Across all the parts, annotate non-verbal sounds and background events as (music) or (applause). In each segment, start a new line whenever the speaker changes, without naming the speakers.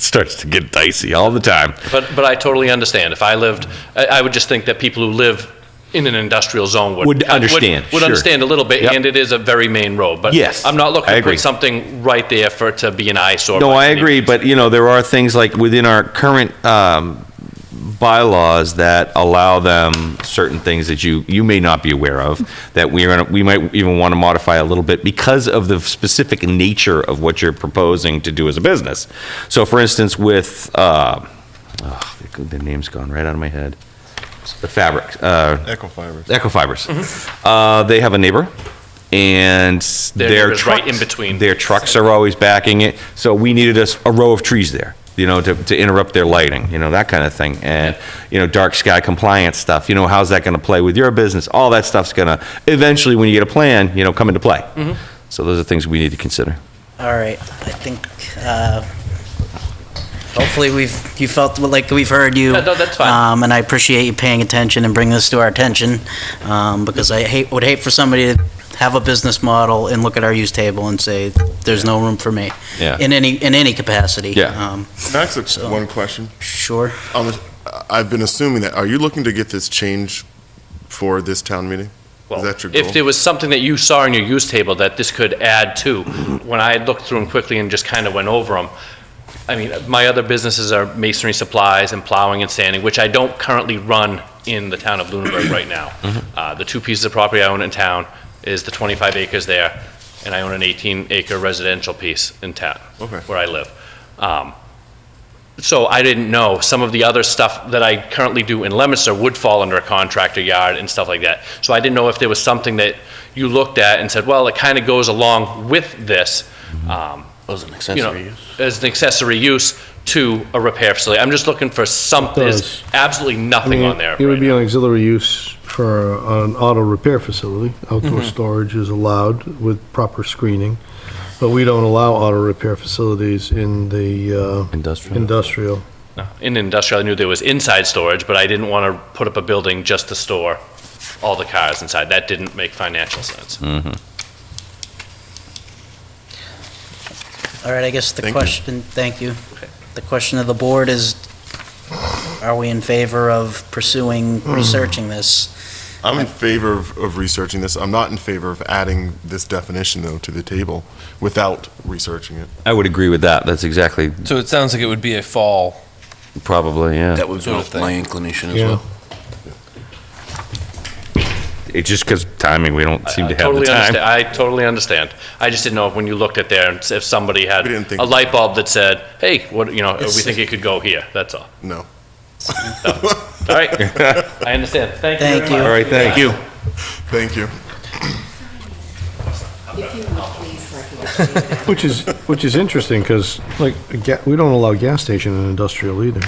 starts to get dicey all the time.
But, but I totally understand. If I lived, I, I would just think that people who live in an industrial zone would.
Would understand,
Would
sure.
understand a little bit,
Yep.
and it is a very main road, but.
Yes,
I'm not looking
I
to
agree.
put something right there for, it to be an eyesore.
No,
by
I
any-
agree, but you know, there are things like within our current um, bylaws that allow them certain things that you, you may not be aware of, that we are, gonna- we might even want to modify a little bit because of the specific nature of what you're proposing to do as a business. So for instance, with, uh, oh, the name's gone right out of my head, the fabric, uh,
Equifibers.
Ecofibers.
Mm-hmm.
Uh, they have a neighbor, and their,
neighbor's
trucks,
right in between.
Their trucks are always backing it, so we needed a, s- a row of trees there, you know, to, to interrupt their lighting, you know, that kind of thing. And you know, dark sky compliance stuff. You know, how's that going to play with your business? All that stuff's going to eventually, when you get a plan, you know, come into play.
Mm-hmm.
So those are things we need to consider.
All right, I think, uh, hopefully we've, you felt like we've heard you.
Yeah, no, that's fine.
Um, and I appreciate you paying attention and bringing this to our attention, um, because I hate, would hate for somebody to have a business model and look at our use table and say, there's no room for me.
Yeah.
In any, in any capacity.
Yeah.
Um,
Can I ask a- one question?
Sure.
On the- I've been assuming that, are you looking to get this change for this town meeting? Is
Well,
that your
If
goal?
there was something that you saw in your use table that this could add to, when I looked through them quickly and just kind of went over them, I mean, my other businesses are masonry supplies and plowing and sanding, which I don't currently run in the town of Lunenburg right now. Uh, The two pieces of property I own in town is the 25 acres there, and I own an 18-acre residential piece in town,
Okay.
where I live. Um, So I didn't know, some of the other stuff that I currently do in Lemonster would fall under a contractor yard and stuff like that. So I didn't know if there was something that you looked at and said, well, it kind of goes along with this, um,
Was an
you know,
accessory use.
as an accessory use to a repair facility. I'm just looking for something, there's
Does.
absolutely
I
nothing
mean,
on there.
It would
right
be
now.
an auxiliary use for an auto repair facility. Outdoor storage is allowed with proper screening, but we don't allow auto repair facilities in the uh,
Industrial.
industrial.
No. In industrial, I knew there was inside storage, but I didn't want to put up a building just to store all the cars inside. That didn't make financial sense.
Hmm.
All right, I guess the
Thank you.
question, thank you. The question of the board is, are we in favor of pursuing, researching this?
I'm in favor of of researching this. I'm not in favor of adding this definition, though, to the table without researching it.
I would agree with that. That's exactly
So it sounds like it would be a fall.
probably yeah.
That was
Sort of
my
thing.
inclination as
Yeah.
well.
It's just because timing, we don't seem
I
to have
totally
the time.
understand. I totally understand. I just didn't know if when you looked at there, and s- if somebody had
We didn't think-
a light bulb that said, hey, what, you know, we
It's-
think it could go here, that's
(laughs)
all.
No.
All right, I understand. Thank you very
Thank you.
much.
All right, thank you.
Thank you.
If you would please
(laughs)
recognize.
Which is, which is interesting, because like, a ga- we don't allow gas station in industrial either.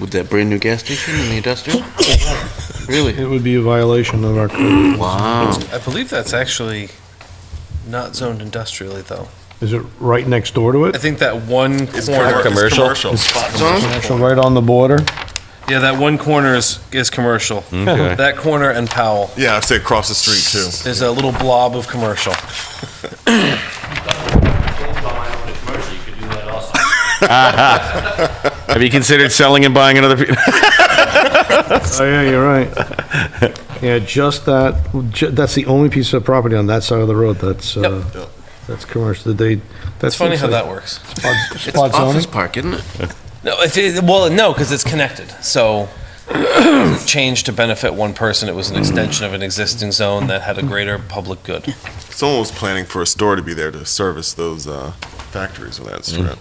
With that brand new gas station in the industrial? (laughs) really?
It would be a violation of our code.
Wow.
I believe that's actually not zoned industrially, though.
Is it right next door to
I
it?
think that one
It's
corner,
commer- commercial?
Spot zone?
Actually, right on the border?
yeah, that one corner is, is commercial.
Okay.
That corner and Powell,
Yeah, I'd say across the street, too.
there's a little blob of commercial.
Have you considered selling and buying another? pe-
Oh, yeah, you're right. (laughs) Yeah, just that, ju- that's the only piece of property on that side of the road that's, uh, that's commercial, Did they, that's.
It's funny how that works. (laughs)
It's
Spot zoning?
office park, isn't it?
No, if it, well, no, because it's connected. So it changed to benefit one person. It was an extension of an existing zone that had a greater public good.
Someone was planning for a store to be there to service those uh, factories on that strip.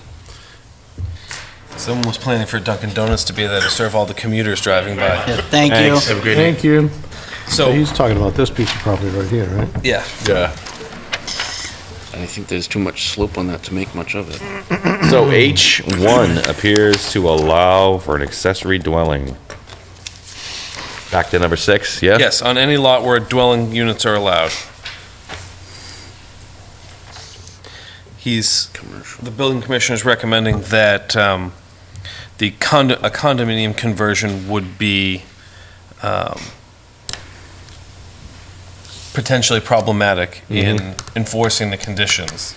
Someone was planning for Dunkin' Donuts to be there to serve all the commuters driving by.
Yeah, Thank you.
Thanks.
Thank you. So
So
he's talking about this piece of property right here, right?
yeah,
I think there's too much slope on that to make much of it.
(laughs) So H1 appears to allow for an accessory dwelling. Back to number six, yeah?
yes, on any lot where dwelling units are allowed. He's
Commercial.
the building commissioner is recommending that um, the condo, a condominium conversion would be um, potentially problematic in enforcing the conditions.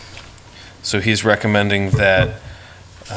So he's recommending that